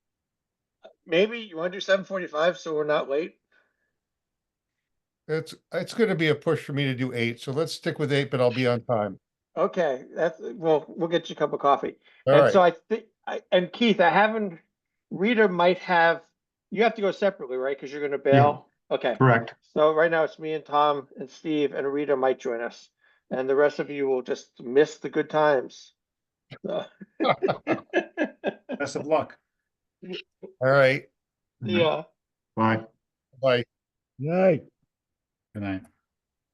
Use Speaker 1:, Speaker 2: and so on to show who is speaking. Speaker 1: maybe you wanna do seven forty-five, so we're not late?
Speaker 2: It's, it's gonna be a push for me to do eight, so let's stick with eight, but I'll be on time.
Speaker 1: Okay, that's, well, we'll get you a cup of coffee.
Speaker 2: All
Speaker 1: And
Speaker 2: right,
Speaker 1: so I think, I, and Keith, I haven't, Rita might have, you have to go separately, right? Cause you're gonna bail? Okay,
Speaker 3: Correct.
Speaker 1: so right now it's me and Tom and Steve and Rita might join us. And the rest of you will just miss the good times. So-
Speaker 4: Best of luck.
Speaker 2: all right,
Speaker 1: Yeah.
Speaker 3: Bye.
Speaker 2: bye.
Speaker 5: Night.
Speaker 4: Good night.